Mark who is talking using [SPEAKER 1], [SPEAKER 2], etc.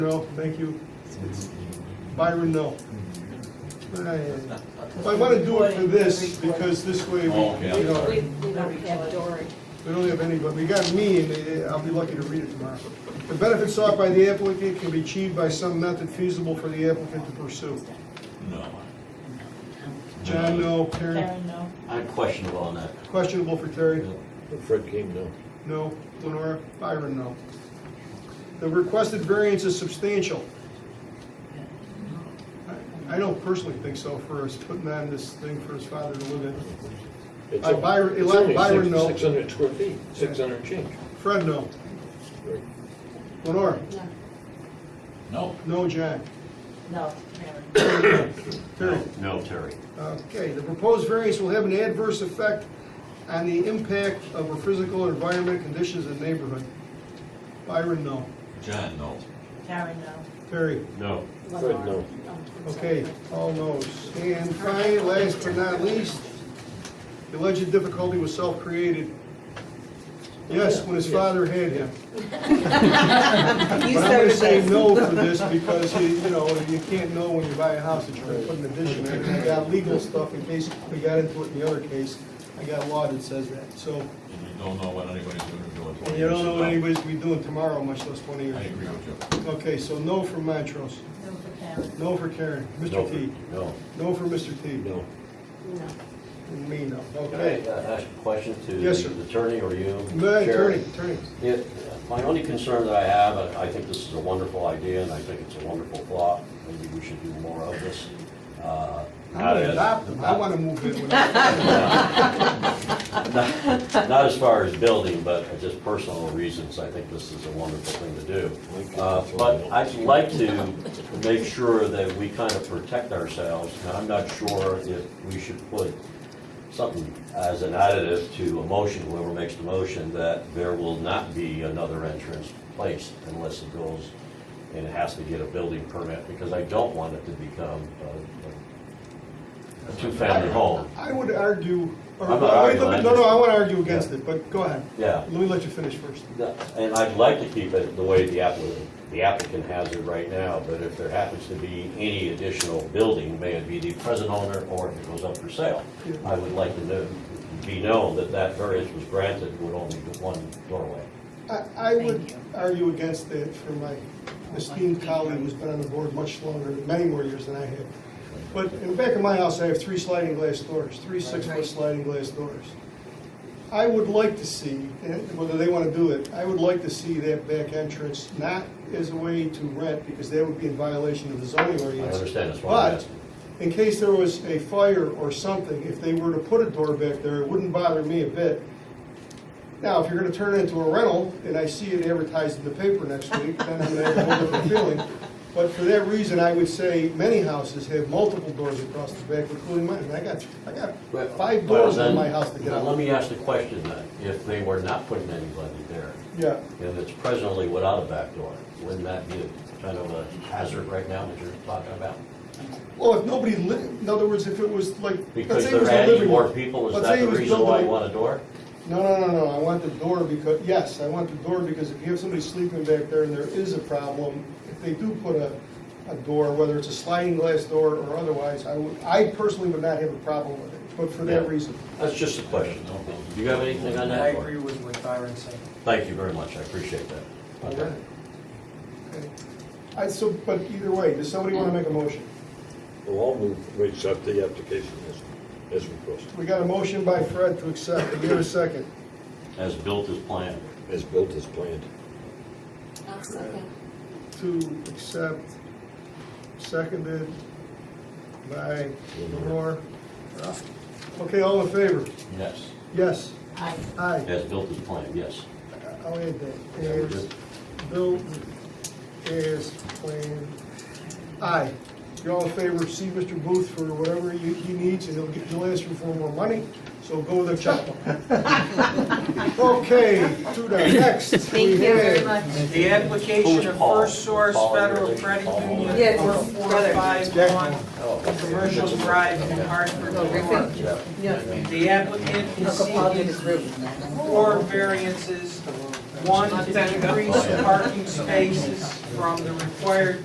[SPEAKER 1] No, thank you. It's Byron, no. But I, I want to do it for this, because this way, we,
[SPEAKER 2] Oh, okay.
[SPEAKER 1] you know,
[SPEAKER 3] We,
[SPEAKER 1] we
[SPEAKER 3] we don't have Dory.
[SPEAKER 1] don't have any, but we got me, and eh, I'll be lucky to read it tomorrow. The benefits sought by the applicant can be achieved by some method feasible for the applicant to pursue.
[SPEAKER 2] No.
[SPEAKER 1] John, no. Karen,
[SPEAKER 3] Karen, no.
[SPEAKER 4] I'm questionable on that.
[SPEAKER 1] questionable for Terry.
[SPEAKER 5] Fred King, no.
[SPEAKER 1] No. Lenora? Byron, no. The requested variance is substantial. I- I don't personally think so for us putting on this thing for his father to live in.
[SPEAKER 5] It's
[SPEAKER 1] Uh,
[SPEAKER 5] on-
[SPEAKER 1] Byron-
[SPEAKER 5] it's
[SPEAKER 1] Eli-
[SPEAKER 5] only
[SPEAKER 1] Byron, no.
[SPEAKER 5] Six hundred square feet, six hundred change.
[SPEAKER 1] Fred, no.
[SPEAKER 5] Right.
[SPEAKER 1] Lenora?
[SPEAKER 2] No.
[SPEAKER 1] No, John?
[SPEAKER 3] No, Karen.
[SPEAKER 1] Terry?
[SPEAKER 4] No, Terry.
[SPEAKER 1] Okay, the proposed variance will have an adverse effect on the impact of our physical and environmental conditions in the neighborhood. Byron, no.
[SPEAKER 2] John, no.
[SPEAKER 3] Karen, no.
[SPEAKER 1] Terry?
[SPEAKER 4] No.
[SPEAKER 5] Fred, no.
[SPEAKER 1] Okay, all no's. And finally, last but not least, the alleged difficulty was self-created. Yes, when his father had him. But I'm gonna say no for this because you, you know, you can't know when you buy a house that you're gonna put an addition in. I got legal stuff in case we got into it in the other case. I got law that says that. So,
[SPEAKER 2] And you don't know what anybody's gonna do in
[SPEAKER 1] and
[SPEAKER 2] twenty years.
[SPEAKER 1] you don't know
[SPEAKER 2] from now.
[SPEAKER 1] what anybody's gonna be doing tomorrow, much less twenty
[SPEAKER 2] I
[SPEAKER 1] years.
[SPEAKER 2] agree with you.
[SPEAKER 1] Okay, so no for Montrose,
[SPEAKER 3] No for Karen.
[SPEAKER 1] no for Karen,
[SPEAKER 5] No,
[SPEAKER 1] Mr. T,
[SPEAKER 5] No,
[SPEAKER 1] no for Mr. T.
[SPEAKER 5] no.
[SPEAKER 3] No.
[SPEAKER 1] And me, no.
[SPEAKER 4] Can I
[SPEAKER 1] Okay.
[SPEAKER 4] uh, ask a question to
[SPEAKER 1] Yes, sir.
[SPEAKER 4] the attorney or you?
[SPEAKER 1] No,
[SPEAKER 4] Chair?
[SPEAKER 1] Attorney, attorney.
[SPEAKER 4] Yeah, My only concern that I have, and I think this is a wonderful idea, and I think it's a wonderful thought, maybe we should do more of this. uh,
[SPEAKER 1] I'm
[SPEAKER 4] not
[SPEAKER 1] gonna
[SPEAKER 4] as-
[SPEAKER 1] adopt them. I wanna move in with them.
[SPEAKER 4] Not not as far as building, but just personal reasons, I think this is a wonderful thing to do. Uh, But I'd like to make sure that we kind of protect ourselves, and I'm not sure if we should put something as an additive to a motion, whoever makes the motion, that there will not be another entrance placed unless it goes and it has to get a building permit, because I don't want it to become a- a two-family home.
[SPEAKER 1] I would argue, or,
[SPEAKER 4] I'm not
[SPEAKER 1] wait,
[SPEAKER 4] arguing,
[SPEAKER 1] let me-
[SPEAKER 4] I'm
[SPEAKER 1] no, no,
[SPEAKER 4] just-
[SPEAKER 1] I wanna argue against it, but go ahead.
[SPEAKER 4] Yeah.
[SPEAKER 1] Let me let you finish first.
[SPEAKER 4] No, And I'd like to keep it the way the applicant, the applicant has it right now, but if there happens to be any additional building, may it be the present owner or if it goes up for sale,
[SPEAKER 1] Yeah.
[SPEAKER 4] I would like to know, be known that that variance was granted with only the one doorway.
[SPEAKER 1] I, I would
[SPEAKER 3] Thank you.
[SPEAKER 1] argue against that for my esteemed colleague who's been on the board much longer, many more years than I have. But in the back of my house, I have three sliding glass doors, three six-foot sliding glass doors. I would like to see, and whether they want to do it, I would like to see that back entrance not as a way to rent, because that would be in violation of the zoning
[SPEAKER 4] I
[SPEAKER 1] ordinance.
[SPEAKER 4] understand, that's why I'm
[SPEAKER 1] But
[SPEAKER 4] asking.
[SPEAKER 1] in case there was a fire or something, if they were to put a door back there, it wouldn't bother me a bit. Now, if you're gonna turn it into a rental, and I see it advertised in the paper next week, then I'm gonna have a whole different feeling. But for that reason, I would say many houses have multiple doors across the back, including mine, and I got, I
[SPEAKER 4] Well,
[SPEAKER 1] got five doors
[SPEAKER 4] then-
[SPEAKER 1] in my house to get
[SPEAKER 4] then Let
[SPEAKER 1] out.
[SPEAKER 4] me ask the question then, if they were not putting anybody there,
[SPEAKER 1] Yeah,
[SPEAKER 4] and it's presently without a back door, wouldn't that be a kind of a hazard right now that you're talking about?
[SPEAKER 1] well, if nobody li, in other words, if it was like, let's
[SPEAKER 4] Because
[SPEAKER 1] say it was
[SPEAKER 4] they're
[SPEAKER 1] a
[SPEAKER 4] adding
[SPEAKER 1] living
[SPEAKER 4] more
[SPEAKER 1] room.
[SPEAKER 4] people, is
[SPEAKER 1] Let's
[SPEAKER 4] that
[SPEAKER 1] say he
[SPEAKER 4] the
[SPEAKER 1] was
[SPEAKER 4] reason why you
[SPEAKER 1] building-
[SPEAKER 4] want a door?
[SPEAKER 1] No, no, no, no, I want the door because, yes, I want the door because if you have somebody sleeping back there and there is a problem, if they do put a, a door, whether it's a sliding glass door or otherwise, I would, I personally would not have a problem with it, but for that
[SPEAKER 4] Yeah.
[SPEAKER 1] reason.
[SPEAKER 4] That's just a question. Do you have anything on that?
[SPEAKER 6] I agree with what Byron said.
[SPEAKER 4] Thank you very much, I appreciate that.
[SPEAKER 1] Okay. I, so, but either way, does somebody want to make a motion?
[SPEAKER 5] Well, I'll move, we accept the application as, as requested,
[SPEAKER 1] We got a motion by Fred to accept, give it a second.
[SPEAKER 4] As built as planned.
[SPEAKER 5] as built as planned.
[SPEAKER 1] to accept, seconded by Lenore. Okay, all in favor?
[SPEAKER 4] Yes.
[SPEAKER 1] Yes,
[SPEAKER 3] I,
[SPEAKER 1] aye.
[SPEAKER 4] As built as planned, yes.
[SPEAKER 1] I'll add that. As built as planned. Aye. You're all in favor, see Mr. Booth for whatever he he needs, and he'll get, he'll ask you for more money, so go with a chop. Okay, to the next.
[SPEAKER 3] Thank you very much.
[SPEAKER 6] The application of
[SPEAKER 4] Paul?
[SPEAKER 6] First Source
[SPEAKER 4] Paul, you're
[SPEAKER 6] Federal
[SPEAKER 4] related to
[SPEAKER 6] Credit
[SPEAKER 4] Paul?
[SPEAKER 6] Union,
[SPEAKER 3] Yes,
[SPEAKER 6] four
[SPEAKER 3] his
[SPEAKER 6] four
[SPEAKER 3] brother.
[SPEAKER 6] five
[SPEAKER 1] Jack.
[SPEAKER 6] one, Commercial Drive in Hartford, New York. The applicant is seeking four variances One, that increase parking spaces from the required